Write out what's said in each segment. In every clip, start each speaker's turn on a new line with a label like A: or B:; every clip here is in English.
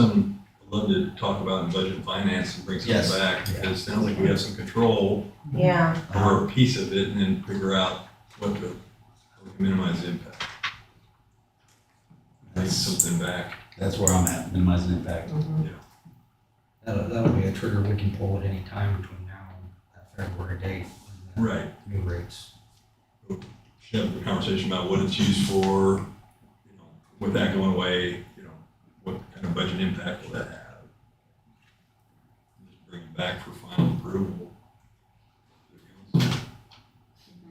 A: some, I'd love to talk about in budget and finance and bring
B: Yes.
A: something back, because it sounds like we have some control
C: Yeah,
A: over a piece of it and then figure out what to, how we can minimize the impact. Bring
B: That's,
A: something back.
B: that's where I'm at, minimizing impact.
D: That'll, that'll be a trigger we can pull at any time between now and that February date. when
A: Right.
D: the New rates.
A: Should have a conversation about what it's used for, you know, with that going away, you know, what kind of budget impact will that have? Just Bring it back for final approval.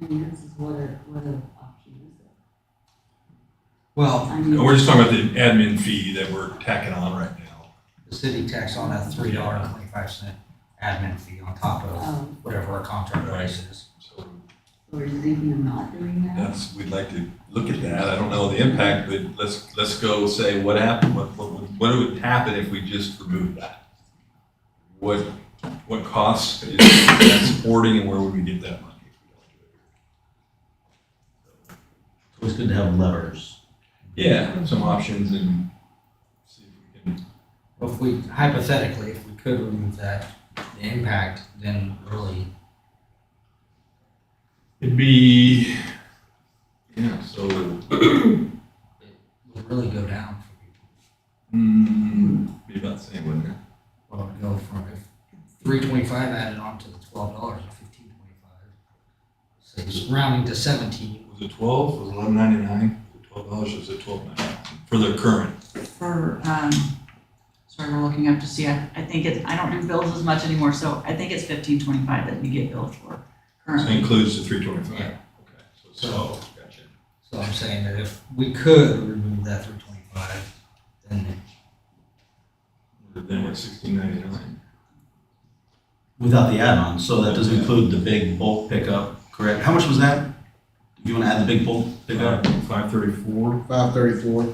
E: Finance is what a, what a option is it?
D: Well,
E: I
A: And
E: mean,
A: we're just talking about the admin fee that we're tacking on right now.
D: the city tax on a three dollar and twenty-five cent admin fee on top of
E: um,
D: whatever our contract price is.
A: So
E: or is it thinking of not doing that?
A: That's, we'd like to look at that. I don't know the impact, but let's, let's go say what happened, what, what, would- what would happen if we just removed that? What, what costs is that supporting and where would we get that money? if we don't do
B: It's always good to have levers.
A: it? Yeah, some options and see if we can,
D: Well, If we hypothetically, if we could remove that, the impact, then really,
A: it'd be, yeah, so,
D: would really go down for people.
A: mm, be about the same, wouldn't it?
D: Well, it'd go from if three twenty-five added on to the twelve dollars and fifteen twenty-five. So it's rounding to seventeen.
A: Was it twelve? Was it eleven ninety-nine? Twelve dollars, was it twelve ninety-nine? For the current,
E: For, um, sorry, we're looking up to see, I, I think it's, I don't do bills as much anymore, so I think it's fifteen twenty-five that we get billed for
A: so
E: currently.
A: includes the three twenty-five? Okay, so, it's
D: So-
A: twelve. gotcha.
D: So I'm saying that if we could remove that three twenty-five, then
A: Then we're sixteen ninety-nine.
B: Without the add-on, so that doesn't include the big bulk pickup, correct? How much was that? You want to add the big bulk
A: Uh,
B: pickup?
A: Five thirty-four.
F: Five thirty-four.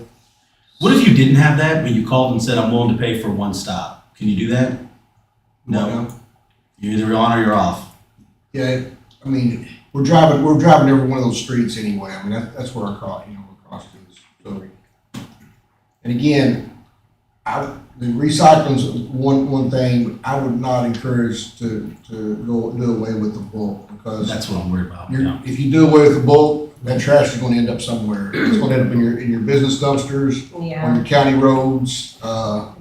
B: What if you didn't have that, but you called and said, I'm willing to pay for one stop? Can you do that? No. You're either on or you're off.
F: Yeah, I mean, we're driving, we're driving every one of those streets anyway. I mean, that, that's where our cost, you know, our cost is. So, And again, I, the recycling's one, one thing, I would not encourage to, to go, do away with the bulk because
B: That's what I'm worried about.
F: you're,
B: Yeah.
F: if you do away with the bulk, that trash is gonna end up somewhere. It's gonna end up in your, in your business dumpsters, on
C: yeah.
F: your county roads, uh,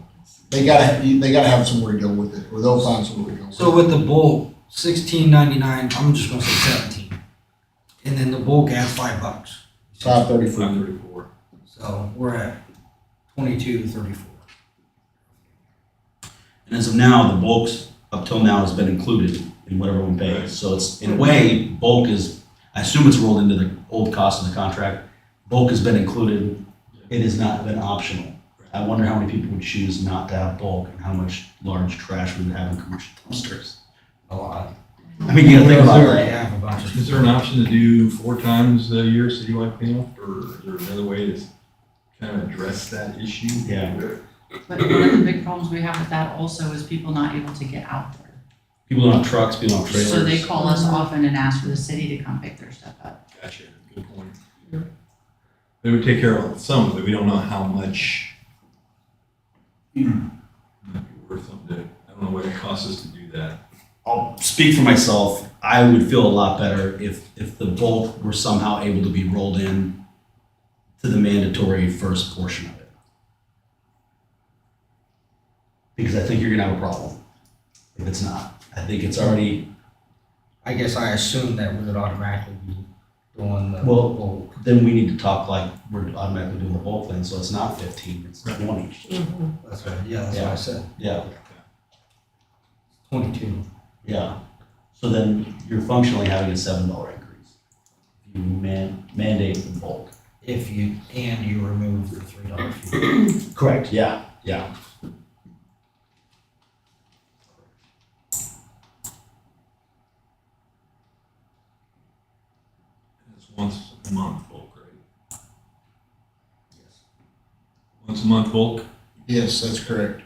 F: they gotta, they gotta have somewhere to go with it, or they'll find somewhere to go with it.
D: So with the bulk, sixteen ninety-nine, I'm just gonna say seventeen. And then the bulk adds five bucks.
F: Five thirty-four.
A: Five thirty-four.
D: So we're at twenty-two thirty-four.
B: And as of now, the bulk's up till now has been included in what everyone
A: Right.
B: pays. So it's, in a way, bulk is, I assume it's rolled into the old cost of the contract. Bulk has been included. It has not been optional. I wonder how many people would choose not to have bulk and how much large trash we would have in commercial dumpsters.
D: A lot.
B: I mean, you gotta think about
D: We
B: that.
D: have a bunch of-
A: Is there an option to do four times a year citywide cleanup, or is there another way to kind of address that issue?
B: Yeah.
E: But one of the big problems we have with that also is people not able to get out there.
B: People don't have trucks, people don't have trailers.
E: So they call us often and ask for the city to come pick their stuff up.
A: Gotcha, good point. They would take care of some, but we don't know how much. Might be worth something to, I don't know what it costs us to do that.
B: I'll speak for myself. I would feel a lot better if if the bulk were somehow able to be rolled in to the mandatory first portion of it. Because I think you're gonna have a problem if it's not. I think it's already
D: I guess I assumed that we would automatically be doing the
B: Well-
D: bulk.
B: then we need to talk like we're automatically doing the bulk thing, so it's not fifteen, it's
A: Right.
B: twenty.
C: Mhm.
D: That's right, yeah, that's what I said,
B: Yeah,
D: twenty-two.
B: yeah. So then you're functionally having a seven dollar increase. If You man mandate the bulk.
D: If you, and you remove the three dollar fee.
B: Correct, yeah, yeah.
A: It's once a month bulk, right?
D: Yes.
A: Once a month bulk,
F: Yes, that's correct.